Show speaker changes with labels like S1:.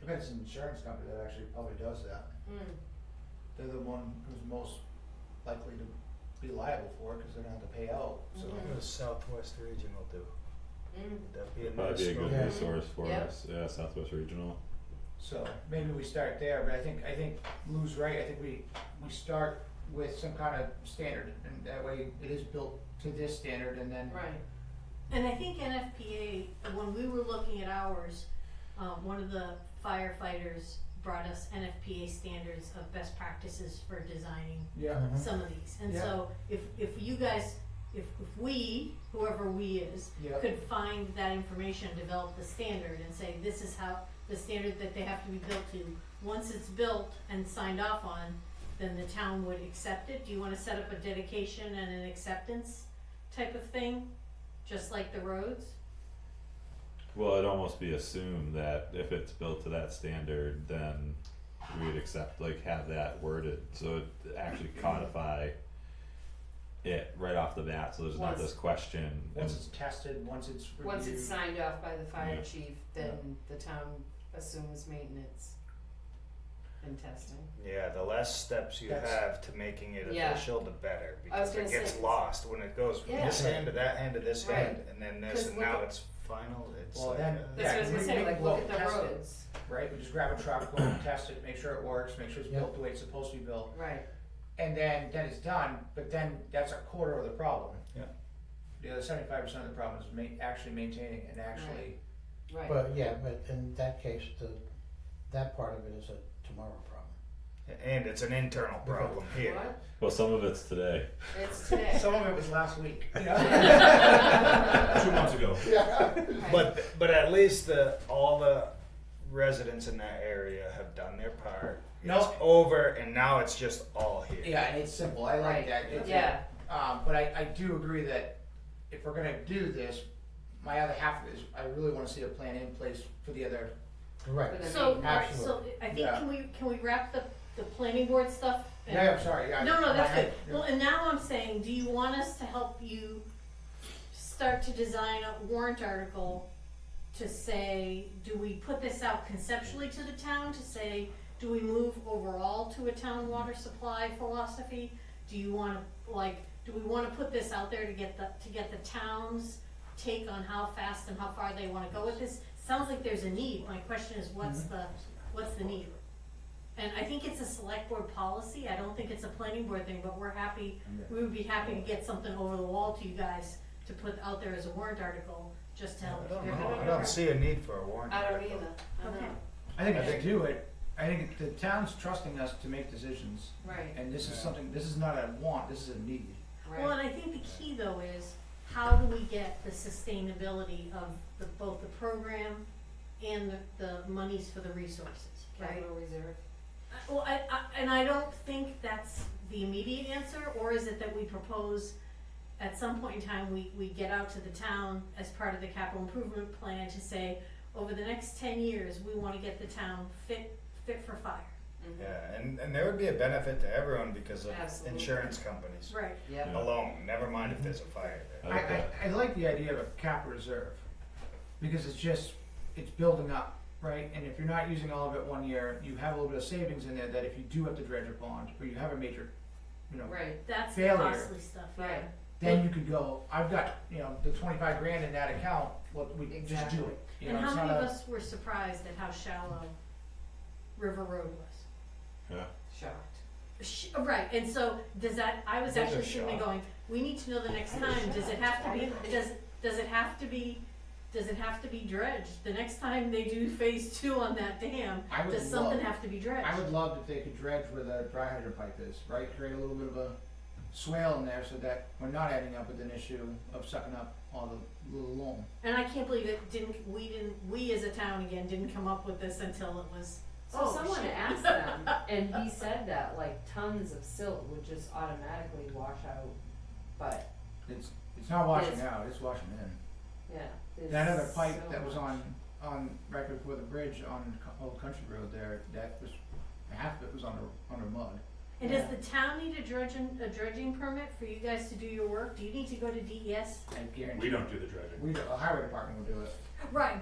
S1: Depends on the insurance company that actually probably does that.
S2: Mm.
S1: They're the one who's most likely to be liable for it because they're gonna have to pay out, so.
S2: Mhm.
S3: What does Southwest Region will do?
S2: Mm.
S3: Would that be another
S4: Probably be a
S3: school?
S4: good
S1: Yeah.
S4: resource for
S2: Yeah.
S4: us, yeah, Southwest Regional.
S1: So maybe we start there, but I think, I think Lou's right, I think we, we start with some kind of standard and that way it is built to this standard and then
S2: Right.
S5: And I think NFPA, when we were looking at ours, um, one of the firefighters brought us NFPA standards of best practices for designing
S1: Yeah.
S5: some of these. And
S1: Yeah.
S5: so if, if you guys, if, if we, whoever we is,
S1: Yeah.
S5: could find that information, develop the standard and say, this is how, the standard that they have to be built to. Once it's built and signed off on, then the town would accept it. Do you wanna set up a dedication and an acceptance type of thing, just like the roads?
S4: Well, it'd almost be assumed that if it's built to that standard, then we would accept, like, have that worded, so it actually codify it right off the bat, so there's not
S2: Once-
S4: this question.
S1: Once
S4: and-
S1: it's tested, once it's reviewed.
S2: Once it's signed off by the fire
S4: Yeah.
S2: chief, then the town assumes maintenance and testing.
S3: Yeah, the less steps you
S1: That's-
S3: have to making it
S2: Yeah.
S3: official, the better,
S2: I was
S3: because it
S2: gonna
S3: gets
S2: say-
S3: lost when it goes from
S2: Yeah.
S3: this hand to that hand to this
S2: Right.
S3: hand, and then this,
S2: 'Cause
S3: and
S2: look
S3: now
S2: at-
S3: it's final, it's
S1: Well,
S3: like,
S1: then-
S3: uh,
S2: That's what I was gonna
S1: Yeah,
S2: say,
S1: we-
S2: like,
S1: we-
S2: look at the
S1: test it.
S2: roads,
S1: Right, we just grab a truck, go and test it, make sure it works, make sure it's built the way it's supposed to be built.
S2: right,
S1: And then, then it's done, but then that's a quarter of the problem.
S6: Yeah.
S1: The other seventy-five percent of the problem is ma- actually maintaining and actually,
S2: right.
S6: But yeah, but in that case, the, that part of it is a tomorrow problem.
S3: and it's an internal problem here.
S2: What?
S4: Well, some of it's today.
S2: It's today.
S1: some of it was last week, you know?
S6: Two months ago. Yeah.
S2: Right.
S3: But but at least the all the residents in that area have done their part. It's
S1: No.
S3: over, and now it's just all here.
S1: Yeah, and it's simple, I like
S2: Right.
S1: that. It's-
S2: Yeah,
S1: Um, but I, I do agree that if we're gonna do this, my other half of it is, I really wanna see a plan in place for the other,
S6: Right.
S2: But I
S5: So,
S2: mean-
S5: alright, so I think,
S1: Yeah.
S5: can we, can we wrap the, the planning board stuff? and-
S1: yeah, I'm sorry, yeah.
S5: No, no, that's
S1: my-
S5: good. Well, and now I'm saying, do you want us to help you start to design a warrant article to say, do we put this out conceptually to the town to say, do we move overall to a town water supply philosophy? Do you wanna, like, do we wanna put this out there to get the, to get the town's take on how fast and how far they wanna go with this? Sounds like there's a need. My question is, what's the, what's the need? And I think it's a select board policy, I don't think it's a planning board thing, but we're happy, we would be happy to get something over the wall to you guys to put out there as a warrant article, just to help.
S3: I don't
S5: you.
S3: know. I don't see a need for a warrant.
S2: I don't
S3: article.
S2: either, I
S5: Okay.
S2: know,
S1: I think
S3: I
S1: if
S3: think-
S1: they do it, I think the town's trusting us to make decisions,
S2: right,
S1: and this is
S3: Yeah.
S1: something, this is not a want, this is a need.
S5: Well,
S2: right,
S5: and I think the key though is, how do we get the sustainability of the, both the program and the, the monies for the resources, right?
S2: capital reserve,
S5: I- Well, I, I, and I don't think that's the immediate answer, or is it that we propose at some point in time, we, we get out to the town as part of the capital improvement plan to say, over the next ten years, we wanna get the town fit, fit for fire.
S2: mhm,
S3: Yeah, and, and there would be a benefit to everyone because of
S2: Absolutely.
S3: insurance companies
S5: Right.
S2: yep,
S3: alone. Never mind if there's a fire
S4: I
S3: there.
S1: I,
S4: like
S1: I,
S4: that.
S1: I like the idea of a cap reserve, because it's just, it's building up, right? And if you're not using all of it one year, you have a little bit of savings in there that if you do have to dredge a pond, or you have a major, you know,
S2: right,
S5: That's the
S1: Failure.
S5: costly stuff, yeah.
S2: right,
S1: then you could go, I've got, you know, the twenty-five grand in that account, what, we just do
S2: Exactly.
S1: it. You
S5: And
S1: know,
S5: how
S1: it's
S5: many
S1: not
S5: of
S1: a-
S5: us were surprised at how shallow River Road was?
S2: shocked,
S5: Sh- Right, and so, does that, I was
S3: Those are
S5: actually sitting there
S3: shallow.
S5: going, we need to know the next time, does it have to be, does, does it have to be, does it have to be dredged? The next time they do phase two on that dam,
S1: I would
S5: does something
S1: love-
S5: have to be dredged?
S1: I would love if they could dredge where the dry hydrant pipe is, right, create a little bit of a swale in there so that we're not ending up with an issue of sucking up all the little loam.
S5: And I can't believe it didn't, we didn't, we as a town again, didn't come up with this until it was,
S7: So
S5: oh,
S7: someone
S5: shit.
S7: asked them, and he said that like tons of silt would just automatically wash out, but
S1: It's, it's not washing
S7: Yes.
S1: out, it's washing in.
S7: yeah. there's
S1: That other pipe
S7: so
S1: that was
S7: much.
S1: on, on, right before the bridge on Co- Old Country Road there, that was, half of it was under, under mud.
S5: And does the town need a dredging, a dredging permit for you guys to do your work? Do you need to E go to DES?
S1: I guarantee.
S6: We don't do the dredging.
S1: We, the highway department will do it.
S5: Right,